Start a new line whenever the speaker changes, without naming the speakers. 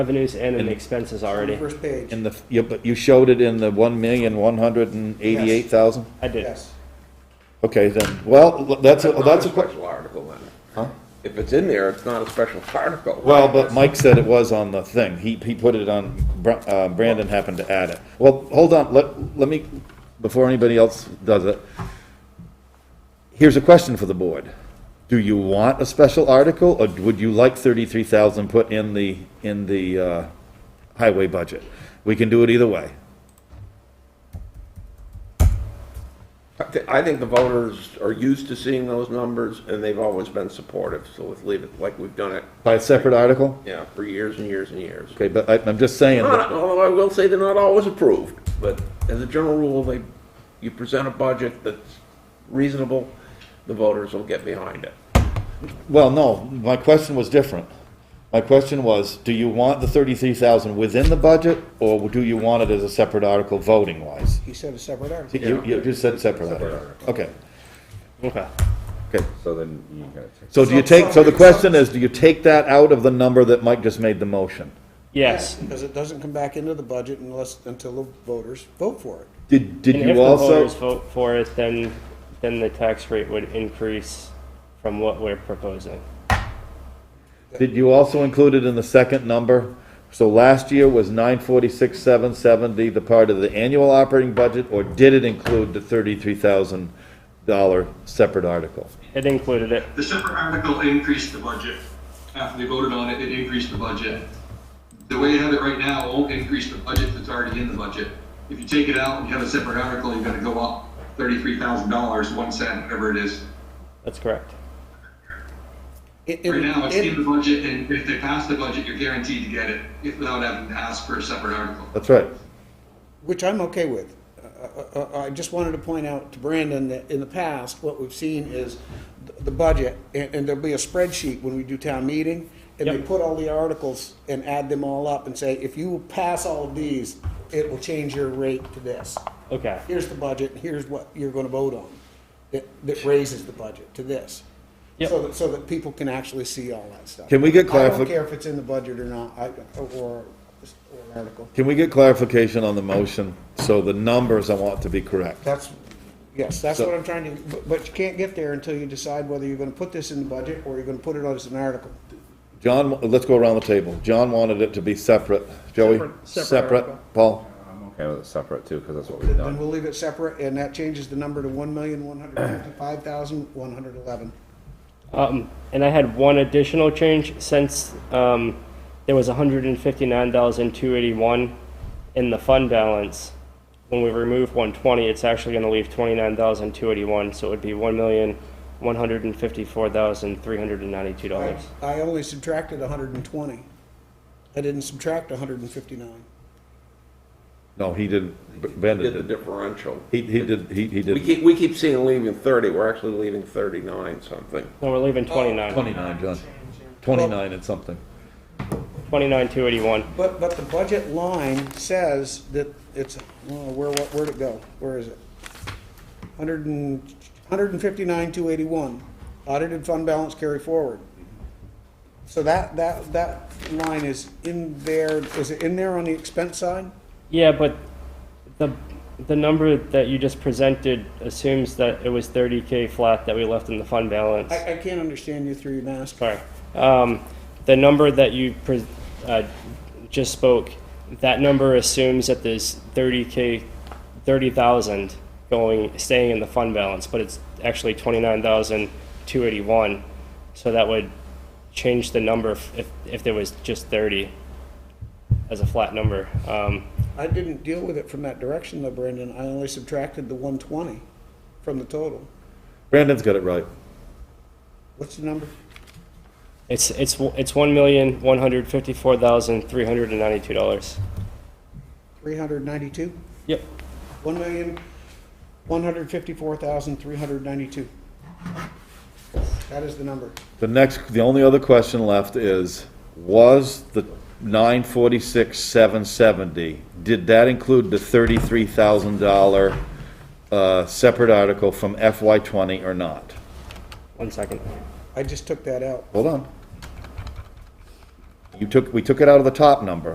revenues and in the expenses already.
First page,
In the, you, but you showed it in the one million, one hundred and eighty-eight thousand?
I did.
yes.
Okay, then, well, that's, a
Not
that's
a
a,
special article then. If it's in there, it's not a special article.
well, but Mike said it was on the thing. He, he put it on, Br- uh, Brandon happened to add it. Well, hold on, let, let me, before anybody else does it. Here's a question for the board. Do you want a special article, or would you like thirty-three thousand put in the, in the, uh, highway budget? We can do it either way.
I thi- I think the voters are used to seeing those numbers and they've always been supportive, so let's leave it like we've done it,
By a separate article?
yeah, for years and years and years.
Okay, but I, I'm just saying. that-
Not- Although I will say they're not always approved, but as a general rule, they, you present a budget that's reasonable, the voters will get behind it.
Well, no, my question was different. My question was, do you want the thirty-three thousand within the budget, or do you want it as a separate article voting wise?
He said a separate article.
You, you just said separate article. Okay,
Okay.
okay.
So then you gotta take.
So do you take, so the question is, do you take that out of the number that Mike just made the motion?
Yes.
Because it doesn't come back into the budget unless, until the voters vote for it.
Did, did
And if
you
the voters
also,
vote for it, then, then the tax rate would increase from what we're proposing.
did you also include it in the second number? So last year was nine forty-six, seven seventy, the part of the annual operating budget, or did it include the thirty-three thousand dollar separate article?
It included it.
The separate article increased the budget. After they voted on it, it increased the budget. The way you have it right now it won't increase the budget that's already in the budget. If you take it out and you have a separate article, you're gonna go up thirty-three thousand dollars, one cent, whatever it is.
That's correct.
In- in-
Right now, it's
in-
in the budget, and if they pass the budget, you're guaranteed to get it, if, without having to ask for a separate article.
That's right.
Which I'm okay with. Uh, uh, uh, I just wanted to point out to Brandon that in the past, what we've seen is th- the budget, and and there'll be a spreadsheet when we do town meeting, and they
Yep.
put all the articles and add them all up and say, if you pass all of these, it will change your rate to this.
Okay.
Here's the budget, and here's what you're gonna vote on, that, that raises the budget to this.
Yep.
So that, so that people can actually see all that stuff.
Can we get
I
clarifi-
don't care if it's in the budget or not, I, or, or an article.
Can we get clarification on the motion? So the numbers I want to be correct.
That's, yes, that's
So-
what I'm trying to, but, but you can't get there until you decide whether you're gonna put this in the budget or you're gonna put it on as an article.
John, let's go around the table. John wanted it to be separate. Joey?
Separate- separate article.
Paul?
I'm okay with it separate too, because that's what we've
Then
done.
we'll leave it separate, and that changes the number to one million, one hundred fifty-five thousand, one hundred eleven.
Um, and I had one additional change since um, there was $159,281 in the fund balance. When we remove 120, it's actually going to leave 29,281, so it would be $1,154,392.
I only subtracted hundred and twenty. I didn't subtract hundred and fifty-nine.
No, he didn't. B- Bennett
Did the
did.
differential.
He, he did, he, he
We
did.
keep, we keep seeing leaving thirty, we're actually leaving thirty-nine something.
No, we're leaving 29,
Twenty-nine, John. Twenty-nine and something.
29,281.
But, but the budget line says that it's, well, where, what, where'd it go? Where is it? Hundred and, hundred and fifty-nine, two eighty-one, audited fund balance carry forward. So that, that, that line is in there, is it in there on the expense side?
Yeah, but the, the number that you just presented assumes that it was 30K flat that we left in the fund balance.
I, I can't understand you through your mask.
Sorry. Um, the number that you pre- uh, just spoke, that number assumes that there's 30k, 30,000 going, staying in the fund balance, but it's actually 29,281. So that would change the number if, if, if there was just 30 as a flat number. Um,
I didn't deal with it from that direction though, Brandon, I only subtracted the one twenty from the total.
Brandon's got it right.
What's the number?
it's, it's, it's $1,154,392.
Three hundred ninety-two?
Yep.
One million, one hundred fifty-four thousand, three hundred ninety-two. That is the number.
The next, the only other question left is, was the nine forty-six, seven seventy, did that include the thirty-three thousand dollar, uh, separate article from FY twenty or not?
One second.
I just took that out.
Hold on. You took, we took it out of the top number.